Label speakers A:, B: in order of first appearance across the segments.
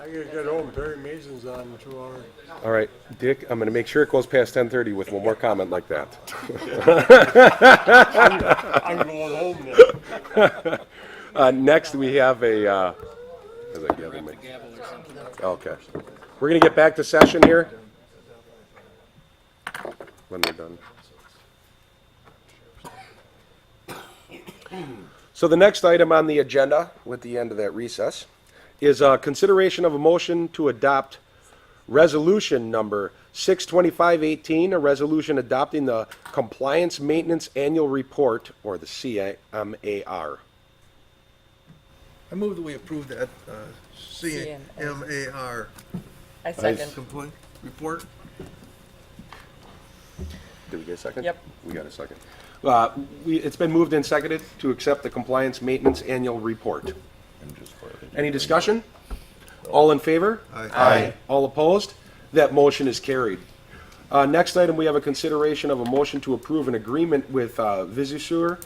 A: at home, Perry Mason's on in two hours.
B: All right, Dick, I'm gonna make sure it goes past ten thirty with one more comment like that.
A: I'm going home now.
B: Uh, next, we have a, uh, as I gather my- Okay. We're gonna get back to session here. When they're done. So the next item on the agenda, with the end of that recess, is, uh, consideration of a motion to adopt Resolution number 62518, a resolution adopting the Compliance Maintenance Annual Report, or the CMAR.
C: I move that we approve that uh, CMAR
D: I second.
C: complaint report.
B: Did we get a second?
D: Yep.
B: We got a second. Uh, we, it's been moved and seconded to accept the Compliance Maintenance Annual Report. Any discussion? All in favor?
C: Aye.
B: All opposed? That motion is carried. Uh, next item, we have a consideration of a motion to approve an agreement with, uh, Visusur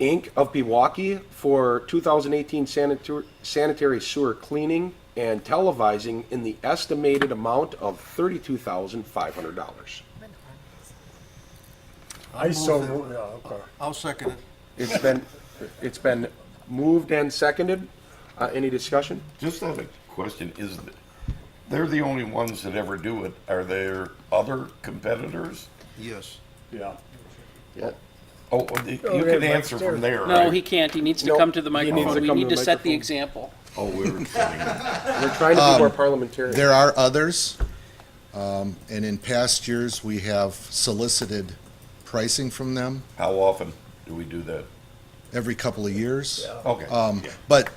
B: Inc. of Pewaukee for two thousand eighteen sanitary, sanitary sewer cleaning and televising in the estimated amount of thirty-two thousand five hundred dollars.
A: I so, moved, yeah, okay.
C: I'll second it.
B: It's been, it's been moved and seconded. Uh, any discussion?
E: Just have a question, is, th- they're the only ones that ever do it, are there other competitors?
C: Yes.
A: Yeah.
E: Oh, well, the- you can answer from there,
F: No,
E: right?
F: he can't. He needs to
B: Nope.
F: come to the
B: He needs to
F: microphone. We
B: come to
F: need
B: the
F: to set the
B: microphone.
F: example.
E: Oh, we were kidding.
B: We're trying to be more parliamentarian.
G: Um, There are others, um, and in past years, we have solicited pricing from them
E: How often do we do that?
G: every couple of years.
E: Okay.
G: Um, But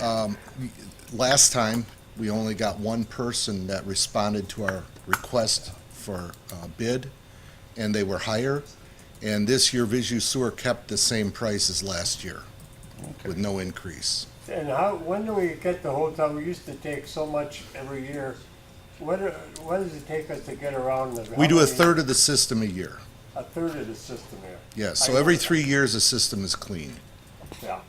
G: um, we- last time, we only got one person that responded to our request for uh, bid, and they were higher. And this year, Visu Sewer kept the same price as last year, with no increase.
A: And how, when do we get the hotel? We used to take so much every year. What, are- what does it take us to get around the?
G: We do a
A: how many-
G: third of the system a year,
A: A third of the system here.
G: yes. So every three years, the system is cleaned.
A: Yeah.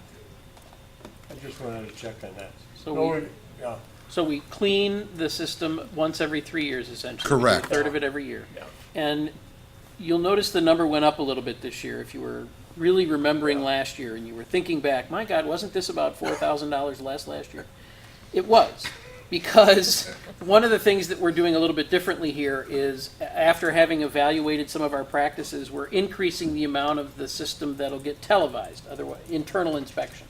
A: I just wanted to check on that.
F: So
A: No,
F: we-
A: we- Yeah,
F: So we clean the system once every three years, essentially. We do
G: Correct.
F: a third of it every year. And you'll notice the number went up a little bit this year. If you were really remembering last year and you were thinking back, my God, wasn't this about four thousand dollars less last year? It was, because one of the things that we're doing a little bit differently here is, a- after having evaluated some of our practices, we're increasing the amount of the system that'll get televised, otherwise, internal inspection.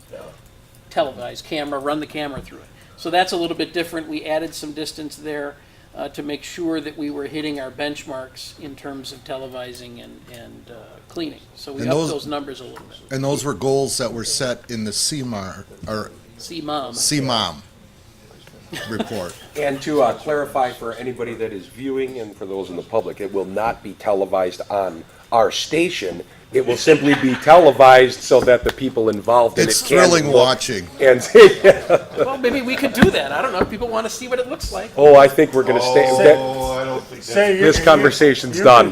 F: Televised camera, run the camera through it. So that's a little bit different. We added some distance there uh, to make sure that we were hitting our benchmarks in terms of televising and, and uh, cleaning. So we
G: And
F: upped
G: those-
F: those numbers a little bit.
G: And those were goals that were set in the CMAR, or
F: See, mom.
G: CMOM report.
B: And to uh, clarify for anybody that is viewing and for those in the public, it will not be televised on our station. It will simply be televised so that the people involved in it
G: It's
B: can
G: thrilling
B: look
G: watching.
B: And see,
F: Well, maybe we could do that. I don't know. If people want to see what it looks like.
B: oh, I think we're gonna stay, that-
E: Oh, I don't think
A: Say
E: that's,
A: you
B: this
A: can-
B: conversation's
A: you
B: done.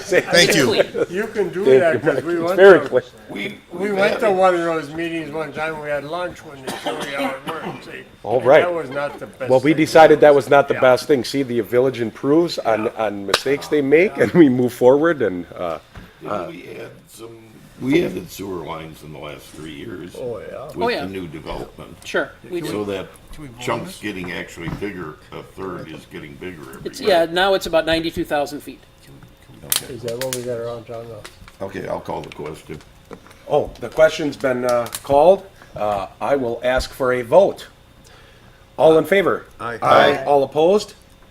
G: Thank you.
F: Clean.
A: You can do that, cause we went
B: Very
A: to,
B: clear.
E: we,
A: we went to one of those meetings one time, we had lunch when they showed you how it worked, see?
B: All
A: And
B: right.
A: That was not the best.
B: Well, we
A: thing.
B: decided that was not the
A: Yeah.
B: best thing. See, the village improves on, on mistakes they make and we move forward and, uh,
E: didn't we add some, we added sewer lines in the last three years. Oh, yeah.
F: Oh,
E: With
F: yeah.
E: the new development.
F: Sure. We
E: So
F: do.
E: that
C: Can we vote on
E: chunk's
C: this?
E: getting actually bigger, a third is getting bigger every
F: It's, yeah,
E: year.
F: now it's about 92,000 feet.
A: Is that what we got around town now?
E: Okay, I'll call the question.
B: Oh, the question's been uh, called. Uh, I will ask for a vote. All in favor?
C: Aye.
B: All opposed?